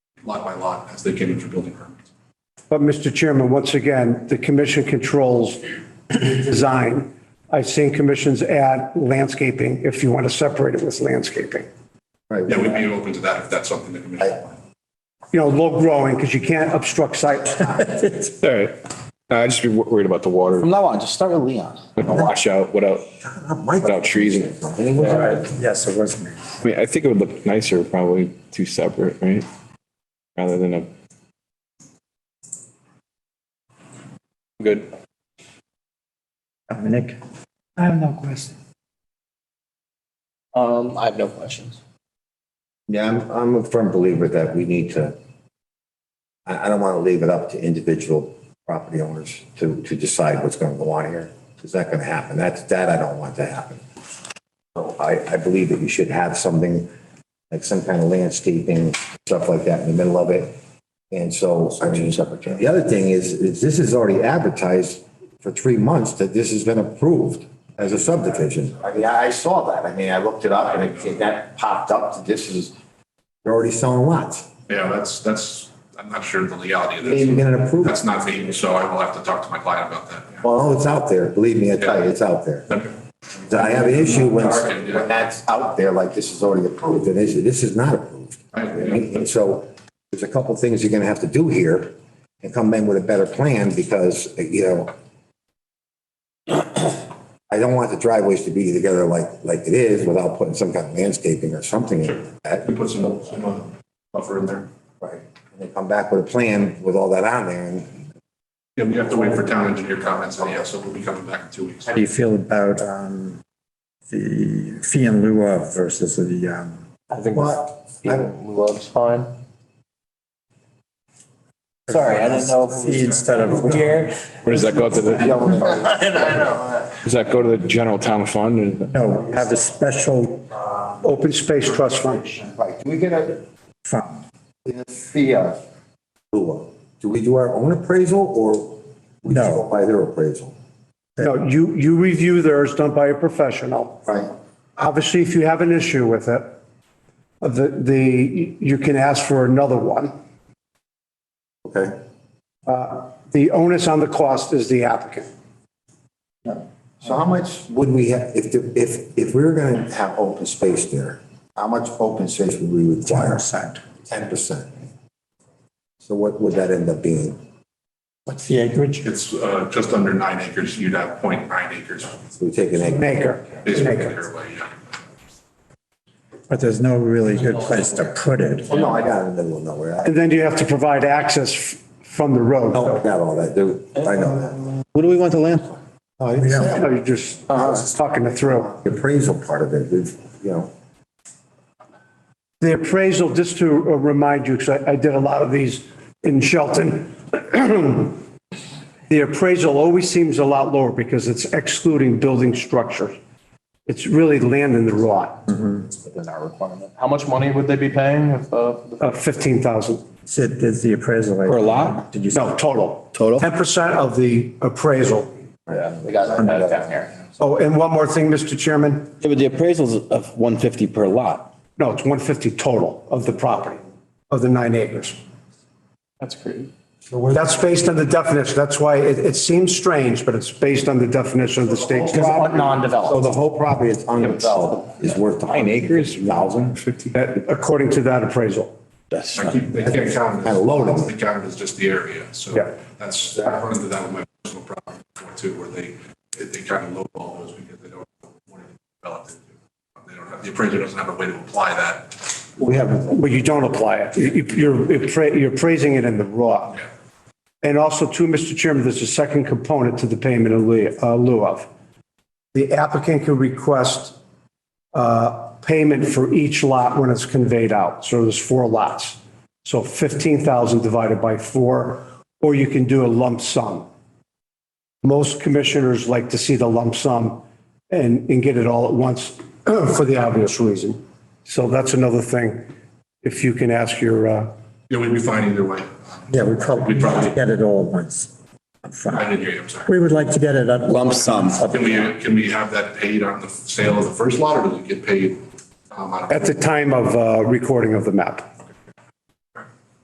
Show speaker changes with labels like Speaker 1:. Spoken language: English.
Speaker 1: lot by lot as they get into building permits.
Speaker 2: But, Mr. Chairman, once again, the commission controls the design. I've seen commissions add landscaping, if you want to separate it with landscaping.
Speaker 1: Yeah, we'd be open to that if that's something the commission.
Speaker 2: You know, low growing, because you can't obstruct site.
Speaker 3: All right. No, I just be wor- worried about the water,
Speaker 4: From now on, just start with Leon.
Speaker 3: a washout without, without trees. and-
Speaker 5: Yes, it was me.
Speaker 3: I mean, I think it would look nicer probably two separate, right? Rather than a. Good.
Speaker 5: Dominic?
Speaker 6: I have no question.
Speaker 4: Um, I have no questions.
Speaker 7: Yeah, I'm, I'm a firm believer that we need to, I, I don't want to leave it up to individual property owners to, to decide what's going to go on here. It's not going to happen. That's, that I don't want to happen. So I, I believe that you should have something, like some kind of landscaping, stuff like that in the middle of it. And so, I mean, the other thing is, is this is already advertised for three months that this has been approved as a subdivision. I mean, I I saw that. I mean, I looked it up and it- it, that popped up, that this is, they're already selling lots.
Speaker 1: Yeah, that's, that's, I'm not sure of the legality of
Speaker 7: They didn't even
Speaker 1: this.
Speaker 7: get an approval.
Speaker 1: That's not legal, so I will have to talk to my client about that. yeah.
Speaker 7: Well, oh, it's out there. Believe me, I tell you, it's out there.
Speaker 1: Okay.
Speaker 7: I have an issue when, when that's out there, like this is already approved, and this, this is not approved.
Speaker 1: I- yeah.
Speaker 7: And so there's a couple things you're gonna have to do here and come in with a better plan because, you know, I don't want the driveways to be together like, like it is without putting some kind of landscaping or something in that.
Speaker 1: We put some, some uh, buffer in there.
Speaker 7: Right. And then come back with a plan with all that on there and
Speaker 1: Yeah, we have to wait for town engineer comments, and yeah, so we'll be coming back in two weeks.
Speaker 5: How do you feel about um, the fee in lieu of versus the, um,
Speaker 4: I think
Speaker 7: Well, I-
Speaker 4: Love's fine. Sorry, I didn't know. if
Speaker 5: fee
Speaker 4: it
Speaker 5: instead
Speaker 4: was
Speaker 5: of,
Speaker 4: Here.
Speaker 3: Or does that go to the, does that go to the general town fund? and-
Speaker 5: no, we have a special
Speaker 2: Open Space Trust Fund.
Speaker 7: Right, do we get a
Speaker 5: fund.
Speaker 7: fee of? Do we do our own appraisal or we just
Speaker 5: No.
Speaker 7: go by their appraisal?
Speaker 2: No, you, you review theirs done by a professional.
Speaker 7: Right.
Speaker 2: Obviously, if you have an issue with it, the, the, you can ask for another one.
Speaker 7: Okay.
Speaker 2: The onus on the cost is the applicant.
Speaker 7: So how much would we have, if, the- if, if we were gonna have open space there, how much open space would we require? Ten percent. So what would that end up being?
Speaker 5: What's the acreage?
Speaker 1: It's uh, just under nine acres, you'd have point nine acres.
Speaker 7: So we take an acre.
Speaker 2: Maker.
Speaker 1: Basically, either way, yeah.
Speaker 5: But there's no really good place to put it.
Speaker 7: Oh, no, I got it in the middle of nowhere. I
Speaker 2: And then you have to provide access f- from the road.
Speaker 7: I got all that, dude. I know that.
Speaker 4: What do we want the land for?
Speaker 7: Oh, I didn't say that.
Speaker 2: No, You're just talking it through.
Speaker 7: The appraisal part of it, we've, you know,
Speaker 2: The appraisal, just to uh, remind you, because I, I did a lot of these in Shelton. The appraisal always seems a lot lower because it's excluding building structure. It's really land in the raw,
Speaker 4: Within our requirement. How much money would they be paying if, uh,
Speaker 2: uh, 15,000,
Speaker 5: Said there's the appraisal. For a lot? Did you?
Speaker 2: no, total.
Speaker 4: Total?
Speaker 2: 10% of the appraisal.
Speaker 4: they got that down here?
Speaker 2: Oh, and one more thing, Mr. Chairman.
Speaker 4: Yeah, but the appraisal's of one fifty per lot.
Speaker 2: No, it's 150 total of the property, of the nine acres.
Speaker 4: That's crazy.
Speaker 2: That's based on the definition. That's why it, it seems strange, but it's based on the definition of the state.
Speaker 7: so
Speaker 4: non-developed.
Speaker 7: the whole property that's undeveloped is worth. Nine acres? Thousand? Fifty?
Speaker 2: That- According to that appraisal.
Speaker 4: That's
Speaker 1: I keep, they can't count it.
Speaker 7: Kinda loaded.
Speaker 1: They count it as just the area, so
Speaker 2: Yeah.
Speaker 1: that's, I run into that with my personal property before too, where they, they- they kind of lowball those because they don't want to develop it. They don't have, the appraiser doesn't have a way to apply that.
Speaker 7: We have,
Speaker 2: Well, you don't apply it. You- You're, appra- you're praising it in the raw. And also too, Mr. Chairman, there's a second component to the payment in lieu uh, lieu of. The applicant can request uh, payment for each lot when it's conveyed out. So there's four lots. So 15,000 divided by four, or you can do a lump sum. Most commissioners like to see the lump sum and, and get it all at once for the obvious reason. So that's another thing, if you can ask your, uh,
Speaker 1: Yeah, we'd be fine either way.
Speaker 5: Yeah, we probably
Speaker 1: We'd probably,
Speaker 5: get it all at once. upfront.
Speaker 1: I didn't hear you, I'm sorry.
Speaker 5: We would like to get it up.
Speaker 4: lump sum.
Speaker 1: Can we, can we have that paid on the sale of the first lot, or does it get paid? um, out of-
Speaker 2: at the time of uh, recording of the map.